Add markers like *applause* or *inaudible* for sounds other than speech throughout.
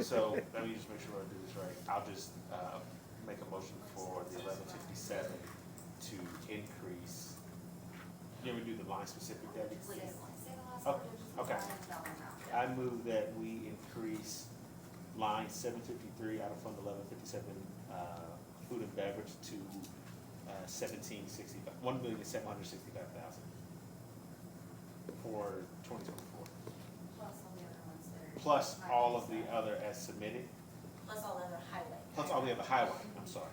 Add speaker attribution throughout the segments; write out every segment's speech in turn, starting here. Speaker 1: So let me just make sure I do this right. I'll just uh, make a motion for the eleven fifty-seven to increase. Can we do the line specific, Debbie? okay. I move that we increase line seven fifty-three out of fund eleven fifty-seven, uh, food and beverage to uh, seventeen sixty-five, one million seven hundred sixty-five thousand for twenty twenty-four, plus all of the other as submitted,
Speaker 2: Plus all other highway.
Speaker 1: plus all the other highway, I'm sorry.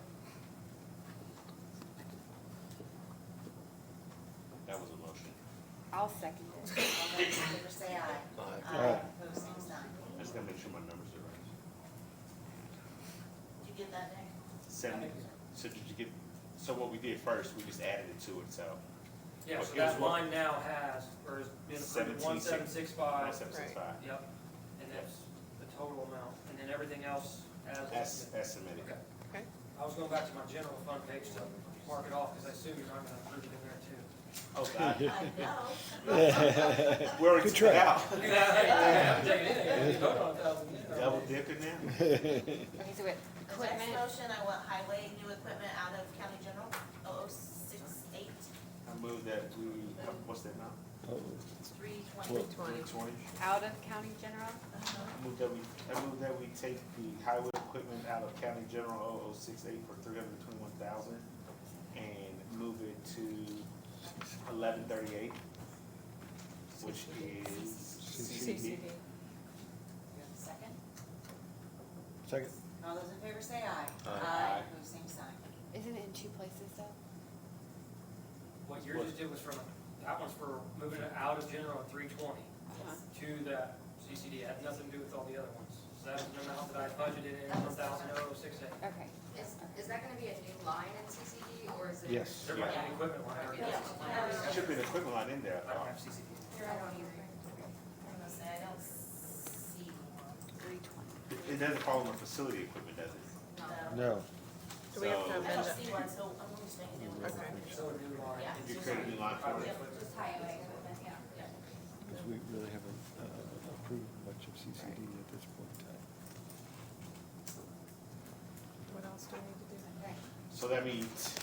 Speaker 1: That was a motion.
Speaker 3: I'll second it.
Speaker 2: All those in favor say Uh, aye.
Speaker 3: Aye.
Speaker 2: Opposed, same sign.
Speaker 1: I just gotta make sure my numbers are right.
Speaker 2: Did you get that, Nick?
Speaker 1: Seventy, so did you get, so what we did first, we just added it to it, so.
Speaker 4: Yeah, so
Speaker 1: Okay,
Speaker 4: that
Speaker 1: so what-
Speaker 4: line now has, or has been approved, one seven six five,
Speaker 1: Seven six five,
Speaker 4: yep, and that's the total amount, and then everything else
Speaker 1: that's,
Speaker 4: as.
Speaker 1: that's submitted.
Speaker 4: Okay.
Speaker 3: Okay.
Speaker 4: I was going back to my general fund page to mark it off, because I assume you're not gonna approve it in there *laughs* too.
Speaker 1: Oh, God.
Speaker 5: *laughs*
Speaker 2: I know.
Speaker 1: We're already
Speaker 5: Good
Speaker 1: took it
Speaker 5: try.
Speaker 1: out.
Speaker 4: Yeah, I haven't taken anything, you voted on a thousand, you know.
Speaker 1: Double dipping now?
Speaker 3: Okay, so wait,
Speaker 2: The next
Speaker 3: equipment,
Speaker 2: motion, I want highway, new equipment out of county general, oh oh six eight
Speaker 1: I move that we, what's that now?
Speaker 2: three twenty.
Speaker 5: Well-
Speaker 1: Twenty. Twenty?
Speaker 3: out of county general?
Speaker 1: I move that we, I move that we take the highway equipment out of County General 0068 for three hundred and twenty-one thousand and move it to eleven thirty-eight, which is CCD.
Speaker 3: CCD.
Speaker 2: Second,
Speaker 5: Second.
Speaker 2: all those in favor say aye.
Speaker 1: Aye. Aye.
Speaker 2: Opposed, same sign.
Speaker 3: Isn't it in two places though?
Speaker 4: What yours just did was from, that one's for moving it out of general at three twenty
Speaker 3: Uh-huh.
Speaker 4: to the CCD, It had nothing to do with all the other ones. So that was the amount that I budgeted in, one thousand oh six eight.
Speaker 3: Okay.
Speaker 6: Is, is that gonna be a new line in CCD, or is it?
Speaker 5: Yes.
Speaker 4: There might be an equipment line, I guess.
Speaker 1: There Should be an equipment line in there, I
Speaker 4: I don't
Speaker 1: thought.
Speaker 4: have CCD.
Speaker 2: Here, I don't either. I'm gonna say, I don't see one.
Speaker 3: Three twenty.
Speaker 1: It- It doesn't fall under facility equipment, does it?
Speaker 2: No.
Speaker 5: No.
Speaker 7: Do we have
Speaker 1: So-
Speaker 7: to
Speaker 2: I
Speaker 7: amend
Speaker 2: don't
Speaker 7: it?
Speaker 2: see one, so I'm gonna just make a new one.
Speaker 7: Okay.
Speaker 4: So a new line.
Speaker 2: Yeah.
Speaker 1: You create a new line for it.
Speaker 6: Just highway equipment, yeah.
Speaker 5: Because we really haven't uh, approved much of CCD at this point in time.
Speaker 7: What else do we need to do?
Speaker 1: So that means,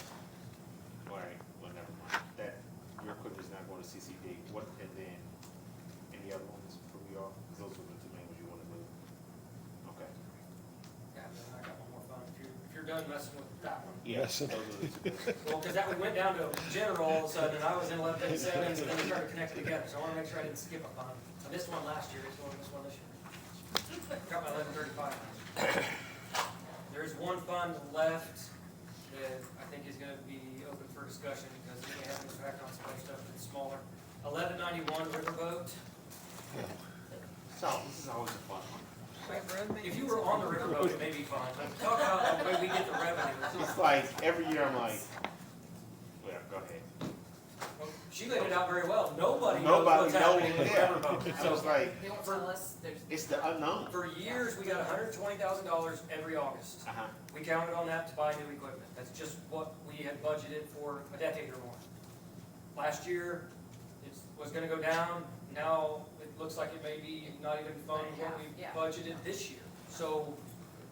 Speaker 1: all right, well, never mind, that, your equipment's not going to CCD, what, and then, any other ones for we are, those are the two main ones you wanna move? Okay,
Speaker 4: Yeah, I got one more phone. If you're, if you're done messing with that one.
Speaker 1: yeah,
Speaker 5: Yes.
Speaker 1: those are the two. big
Speaker 4: Well, because that one went down to general all of a sudden, and I was in eleven thirty-seven, and then we started connecting together. So I want to make sure I didn't skip a line. So this one last year is going to this one this year. Got my eleven thirty-five. There is one fund left that I think is gonna be open for discussion because it may have an impact on some other stuff that's smaller. Eleven ninety-one riverboat.
Speaker 1: ones. So, this is always a fun one.
Speaker 4: If you were on the riverboat, it may be fun. Talk about the way we get the revenue.
Speaker 1: It's like, every year I'm like, well, go ahead.
Speaker 4: Well, She laid it out very well. Nobody knows
Speaker 1: Nobody
Speaker 4: what's
Speaker 1: knows,
Speaker 4: happening with
Speaker 1: yeah.
Speaker 4: Riverboat.
Speaker 1: So
Speaker 4: So
Speaker 1: it's like,
Speaker 2: They won't tell *laughs* us, there's.
Speaker 1: it's the unknown.
Speaker 4: for years, we got hundred twenty thousand dollars every August.
Speaker 1: Uh-huh,
Speaker 4: We counted on that to buy new equipment. That's just what we had budgeted for a decade or more. Last year, it was gonna go down. Now, it looks like it may be not even funding what we
Speaker 6: Yeah.
Speaker 4: budgeted this year. So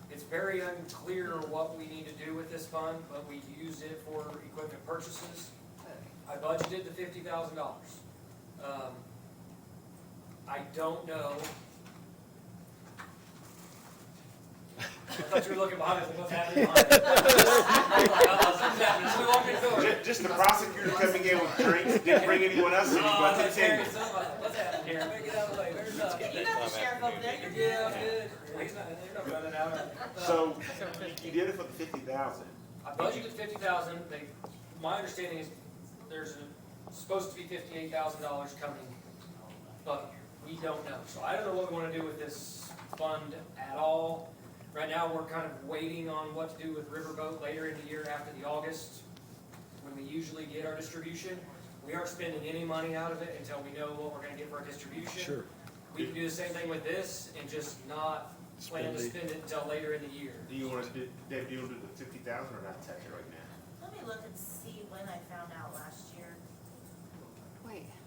Speaker 4: it's very unclear what we need to do with this fund, but we use it for equipment purchases. I budgeted the fifty thousand dollars. Um, I don't know. I thought you were looking behind us, like, what's happening behind us? I'm like, "Uh-oh, something's happening, so we walked in the door.
Speaker 1: just, just the prosecutor coming in with drinks, didn't bring anyone else in,
Speaker 4: "Oh,
Speaker 1: but the
Speaker 4: there's Terry,
Speaker 1: table.
Speaker 4: something, what's happening here? Make it out of the way, there's
Speaker 2: *laughs*
Speaker 4: nothing.
Speaker 2: You got the sheriff over there, you're good.
Speaker 4: Yeah, I'm good. He's not, they're not running out.
Speaker 1: So, you did it for the fifty thousand.
Speaker 4: I budgeted fifty thousand, they, my understanding is there's a- supposed to be fifty-eight thousand dollars coming, but we don't know. So I don't know what we wanna do with this fund at all. Right now, we're kind of waiting on what to do with Riverboat later in the year after the August, when we usually get our distribution. We aren't spending any money out of it until we know what we're gonna get for our distribution.
Speaker 5: Sure.
Speaker 4: We can do the same thing with this and just not plan to
Speaker 5: Spend
Speaker 4: spend it until later in the year.
Speaker 1: Do you wanna do, Dave, do you wanna do the fifty thousand or not touch it right now?
Speaker 2: Let me look and see when I found out last year.
Speaker 3: Wait,